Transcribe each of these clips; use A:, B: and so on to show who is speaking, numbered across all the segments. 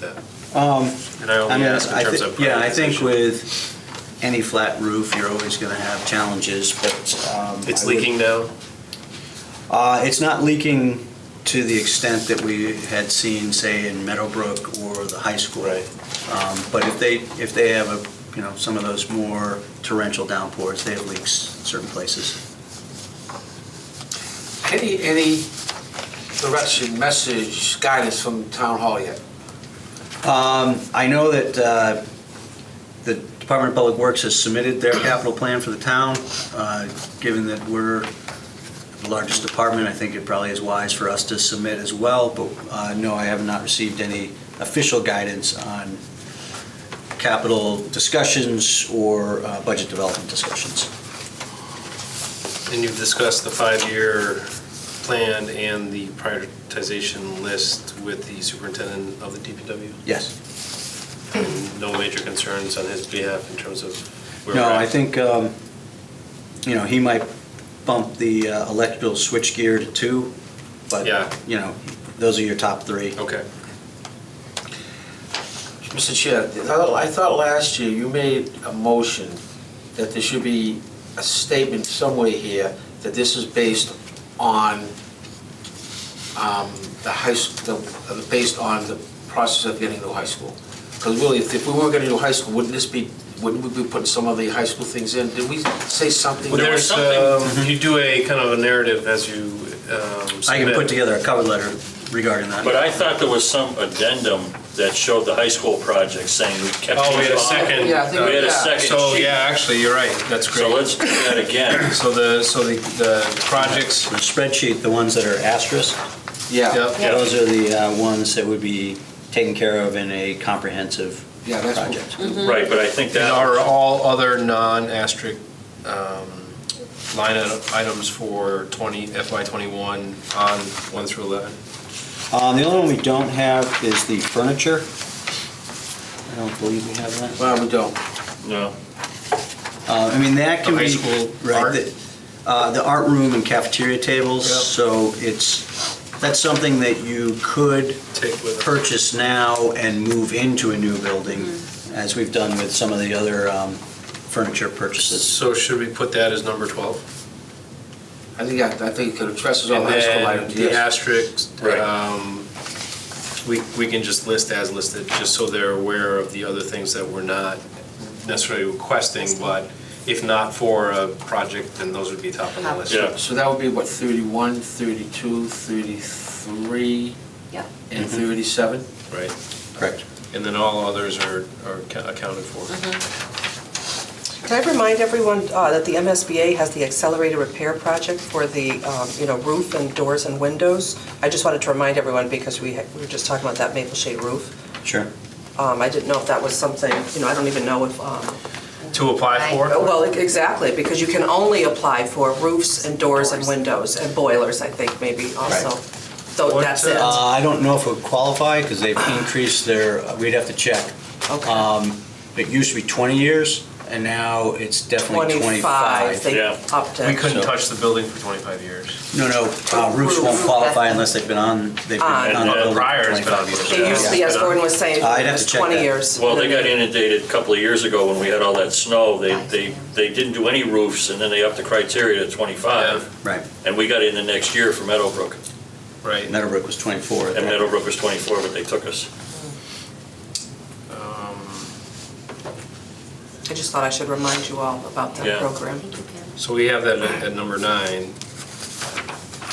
A: that?
B: Um,
A: And I
B: I
A: only
B: mean,
A: ask in
B: I
A: terms
B: think,
A: of.
B: yeah, I think
A: prioritization.
B: with any flat roof, you're always gonna have challenges, but, um.
A: It's
B: I would-
A: leaking now?
B: Uh, it's not leaking to the extent that we had seen, say, in Meadowbrook or the high school.
A: Right.
B: Um, but if they, if they have a, you know, some of those more torrential downpours, they have leaks in certain places.
C: Any, any direction, message, guidance from town hall yet?
B: Um, I know that, uh, the Department of Public Works has submitted their capital plan for the town. Uh, Given that we're the largest department, I think it probably is wise for us to submit as well. But uh, no, I have not received any official guidance on capital discussions or uh, budget development discussions.
A: And you've discussed the five-year plan and the prioritization list with the superintendent of the DPW?
B: Yes.
A: And No major concerns on his behalf in terms of where we're
B: No,
A: at?
B: I think, um, you know, he might bump the uh, electrical switchgear to two, but,
A: Yeah.
B: you know, those are your top three.
A: Okay.
C: Mr. Chair, I thought- I thought last year you made a motion that there should be a statement somewhere here that this is based on um, the high, s- the- uh, based on the process of getting to high school. Because really, if if we weren't getting to high school, wouldn't this be, wouldn't we be putting some of the high school things in? Did we say something?
A: Well, there's,
C: Mhm.
A: um, you do a kind of a narrative as you um,
B: I can put
A: submit.
B: together a cover letter regarding that.
D: But I thought there was some addendum that showed the high school project saying we kept.
A: Oh, we had a
D: these on.
A: second. uh,
C: Yeah, I think-
D: We had a
C: yeah.
D: second
A: So,
D: sheet.
A: yeah, actually, you're right, that's
D: So
A: great.
D: let's do that again.
A: So the, so the, the projects,
B: The spreadsheet, the ones that are asterisk,
C: Yeah,
A: yep,
B: those are the uh, ones that would be taken care of in a comprehensive
C: yeah, that's.
B: project.
D: Right, but I think
A: and
D: that.
A: are all other non-asterisk um, line item- items for 20, FY '21 on 1 through 11?
B: Um, The only one we don't have is the furniture. I don't believe we have that.
C: Well, we don't.
D: No.
B: Uh, I mean, that can
A: The
B: be.
A: high school
B: right,
A: art?
B: the- uh, The art room and cafeteria tables,
A: Yep.
B: so it's, that's something that you could
A: Take with it.
B: purchase now and move into a new building,
E: Mm.
B: as we've done with some of the other um, furniture purchases.
A: So should we put that as number 12?
C: I think, that- I think it addresses all
A: And
C: the high school
A: then
C: items,
A: the
C: yes.
A: asterisks,
D: Right.
A: um, we, we can just list as listed, just so they're aware of the other things that we're not necessarily requesting, but if not for a project, then those would be top on the list.
D: Yeah.
C: So that would be what, 31, 32, 33?
F: Yeah.
C: And
A: Mm-hmm.
C: 37?
A: Right?
B: Correct.
A: And then all others are, are ca- accounted for.
E: Can I remind everyone uh, that the MSBA has the accelerated repair project for the, um, you know, roof and doors and windows? I just wanted to remind everyone because we had- we were just talking about that maple shade roof.
B: Sure.
E: Um, I didn't know if that was something, you know, I don't even know if, um,
A: To apply for?
E: Oh, well, exactly, because you can only apply for roofs and doors and
F: Doors.
E: windows and boilers, I think, maybe also. So
A: What,
E: that's it.
B: Uh, I don't know if it would qualify, because they've increased their, we'd have to check.
E: Okay.
B: It used to be 20 years, and now it's definitely
E: 25,
B: 25.
E: they
D: Yeah.
E: upped it.
A: We couldn't touch the building for 25 years.
B: No, no, uh, roofs won't
E: Roof.
B: qualify unless they've been on, they've been
E: On.
B: on a building
A: Prior
B: for
A: has been on.
B: 25 years.
E: It used to be, as Gordon was saying,
B: I'd have to
E: it was
B: check
E: 20
B: that.
E: years.
D: Well, they got inundated a couple of years ago when we had all that snow. They, they, they didn't do any roofs and then they upped the criteria to 25.
B: Right,
D: And we got in the next year for Meadowbrook.
A: Right.
B: Meadowbrook was 24. at
D: And
B: that-
D: Meadowbrook was 24, but they took us.
A: Um,
E: I just thought I should remind you all about that
D: Yeah.
E: program.
A: So we have that at at number nine.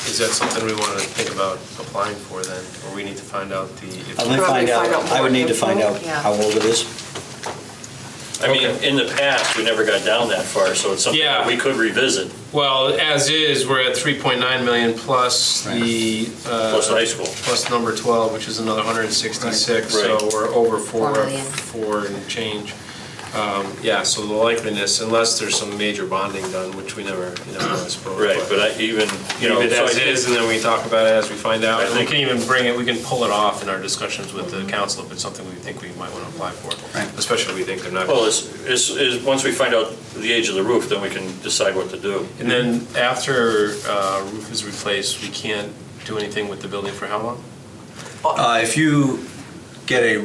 A: Is that something we want to think about applying for then? Or we need to find out the? if-
B: I'll let me
E: Probably
B: find out,
E: find out
B: I would
E: more
B: need to
E: info.
B: find out
F: Yeah.
B: how old it is.
D: I mean, in the past, we never got down that far, so it's something
A: Yeah.
D: that we could revisit,
A: Well, as is, we're at 3.9 million plus the. uh,
D: plus high school.
A: Plus number 12, which is another 166,
D: Right.
A: so we're over four,
F: Four million.
A: four and change. Um, Yeah, so the likeliness, unless there's some major bonding done, which we never, you never know, I suppose.
D: Right, but I even, you know.
A: Leave it
D: so I
A: as
D: think-
A: is, and then we talk about it as we find out.
D: I
A: And we
D: think-
A: can even bring it, we can pull it off in our discussions with the council if it's something we think we might want to apply for.
B: Right.
A: Especially if we think they're not.
D: Well, it's, it's, is, once we find out the age of the roof, then we can decide what to do.
A: And then after uh, roof is replaced, we can't do anything with the building for how long?
B: Uh, If you get a